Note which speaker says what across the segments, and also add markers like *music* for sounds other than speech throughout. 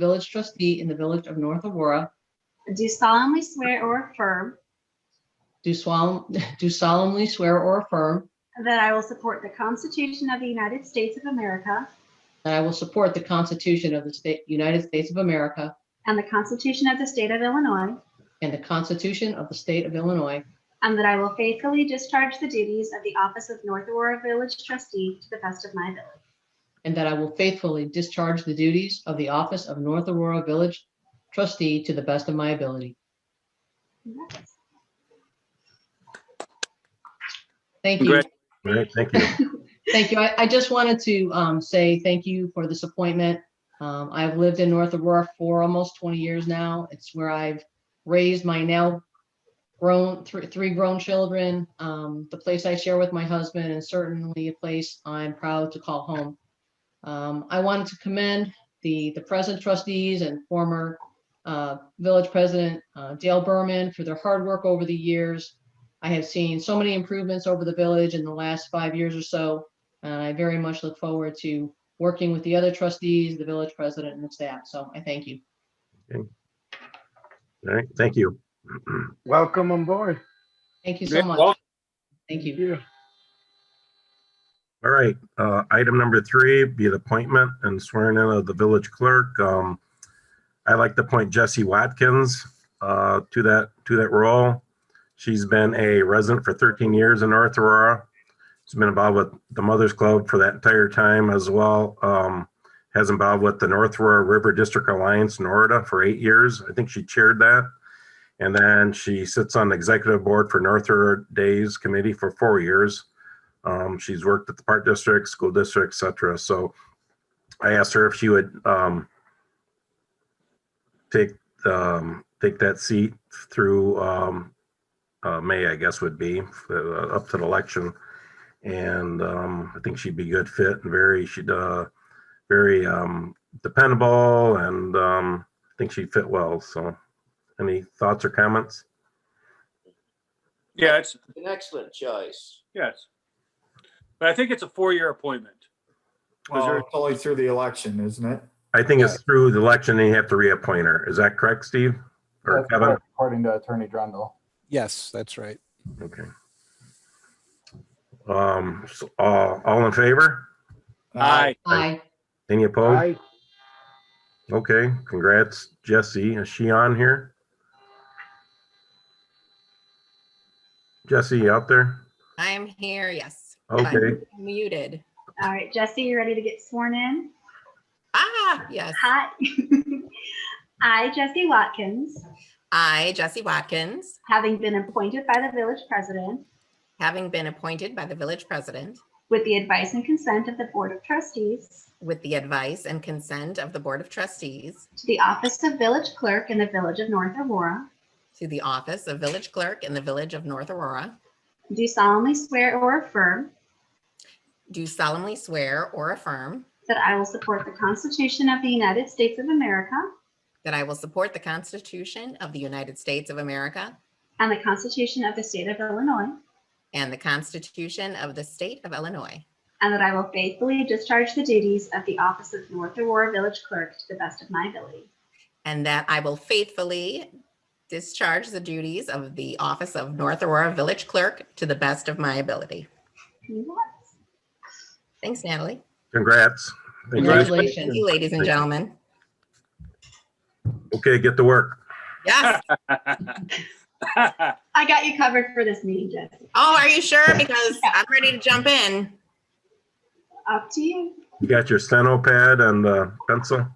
Speaker 1: village trustee in the village of North Aurora,
Speaker 2: do solemnly swear or affirm
Speaker 1: do swal- *laughs* do solemnly swear or affirm
Speaker 2: that I will support the Constitution of the United States of America
Speaker 1: that I will support the Constitution of the State, United States of America
Speaker 2: and the Constitution of the State of Illinois,
Speaker 1: and the Constitution of the State of Illinois,
Speaker 2: and that I will faithfully discharge the duties of the Office of North Aurora Village Trustee to the best of my ability.
Speaker 1: and that I will faithfully discharge the duties of the office of North Aurora Village trustee to the best of my ability.
Speaker 2: Congrats.
Speaker 1: Thank you.
Speaker 3: Congrat-
Speaker 4: All right, thank you.
Speaker 1: Thank you. I, I just wanted to um, say thank you for this appointment. Um, I've lived in North Aurora for almost 20 years now. It's where I've raised my now grown, three, three grown children, um, the place I share with my husband, and certainly a place I'm proud to call home. Um, I wanted to commend the, the present trustees and former uh, village president uh, Dale Berman for their hard work over the years. I have seen so many improvements over the village in the last five years or so. And I very much look forward to working with the other trustees, the village president and the staff. So I thank you.
Speaker 4: All right, thank you. *clears throat*
Speaker 5: Welcome on board.
Speaker 1: Thank you so
Speaker 3: Great.
Speaker 1: much.
Speaker 3: Well,
Speaker 1: Thank you.
Speaker 5: Yeah.
Speaker 4: All right, uh, item number three, be the appointment and swearing in of the village clerk. Um, I'd like to appoint Jesse Watkins, uh, to that, to that role. She's been a resident for thirteen years in North Aurora. She's been involved with the Mothers Club for that entire time as well. Um, has involved with the North Aurora River District Alliance, NORDA, for eight years. I think she chaired that. And then she sits on the executive board for North Aurora Days Committee for four years. Um, she's worked at the park district, school district, et cetera. So I asked her if she would, um, take, um, take that seat through, um, uh, May, I guess would be, uh, up to the election. And, um, I think she'd be good fit and very, she'd, uh, very, um, dependable and, um, I think she'd fit well. So any thoughts or comments?
Speaker 3: Yeah, it's,
Speaker 6: An excellent choice.
Speaker 3: yes. But I think it's a four-year appointment.
Speaker 7: Because
Speaker 3: Well,
Speaker 7: you're only through the election, isn't it?
Speaker 4: I think it's through the election and you have to reappoint her. Is that correct, Steve? Or
Speaker 7: That's
Speaker 4: Kevin?
Speaker 7: correct, According to Attorney Drendel.
Speaker 8: Yes, that's right.
Speaker 4: Okay. Um, so, all, all in favor?
Speaker 7: Uh,
Speaker 3: Aye,
Speaker 1: Aye.
Speaker 4: Any opposed?
Speaker 5: Aye.
Speaker 4: Okay, congrats, Jesse. Is she on here? Jesse, you out there?
Speaker 9: I'm here, yes.
Speaker 4: Okay,
Speaker 9: I'm Muted.
Speaker 2: All right, Jesse, you ready to get sworn in?
Speaker 9: Ah, yes.
Speaker 2: Hi. *laughs* I, Jesse Watkins,
Speaker 9: I, Jesse Watkins,
Speaker 2: having been appointed by the village president
Speaker 9: having been appointed by the village president
Speaker 2: with the advice and consent of the Board of Trustees
Speaker 9: with the advice and consent of the Board of Trustees
Speaker 2: to the office of village clerk in the village of North Aurora,
Speaker 9: to the office of village clerk in the village of North Aurora,
Speaker 2: do solemnly swear or affirm
Speaker 9: do solemnly swear or affirm
Speaker 2: that I will support the Constitution of the United States of America
Speaker 9: that I will support the Constitution of the United States of America
Speaker 2: and the Constitution of the State of Illinois,
Speaker 9: and the Constitution of the State of Illinois,
Speaker 2: and that I will faithfully discharge the duties of the office of North Aurora Village Clerk to the best of my ability.
Speaker 9: and that I will faithfully discharge the duties of the office of North Aurora Village Clerk to the best of my ability.
Speaker 2: Congrats.
Speaker 9: Thanks, Natalie.
Speaker 4: congrats. Thank you.
Speaker 1: Congratulations.
Speaker 9: Thank you, ladies
Speaker 4: Thank
Speaker 9: and
Speaker 4: you.
Speaker 9: gentlemen.
Speaker 4: Okay, get to work.
Speaker 9: Yes.
Speaker 3: *laughs*
Speaker 2: I got you covered for this meeting, Jesse.
Speaker 9: Oh, are you sure? Because I'm ready to jump in.
Speaker 2: Up to you.
Speaker 4: You got your steno pad and, uh, pencil?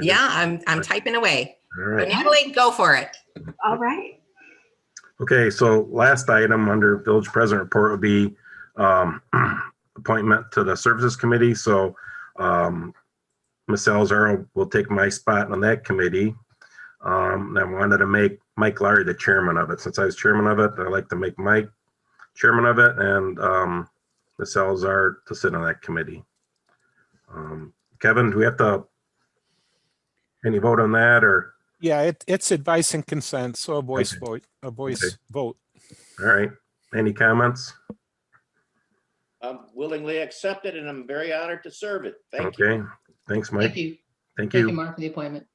Speaker 9: Yeah, I'm, I'm typing away.
Speaker 4: All
Speaker 9: But
Speaker 4: right.
Speaker 9: Natalie, go for it.
Speaker 2: All right.
Speaker 4: Okay, so last item under village president report would be um, *clears throat* appointment to the services committee. So um, Ms. Salzaro will take my spot on that committee. Um, And I wanted to make Mike Larry the chairman of it. Since I was chairman of it, I'd like to make Mike chairman of it and um, Ms. Salzar to sit on that committee. Um, Kevin, do we have to any vote on that or?
Speaker 8: Yeah, it, it's advice and consent, so a voice
Speaker 4: Okay.
Speaker 8: vote, a
Speaker 4: Okay.
Speaker 8: voice vote.
Speaker 4: All right, any comments?
Speaker 6: I'm willingly accepted and I'm very honored to serve it. Thank you.
Speaker 4: Okay, thanks, Mike.
Speaker 1: Thank you.
Speaker 4: Thank
Speaker 1: Thank you,
Speaker 4: you.
Speaker 1: Mark, for the appointment.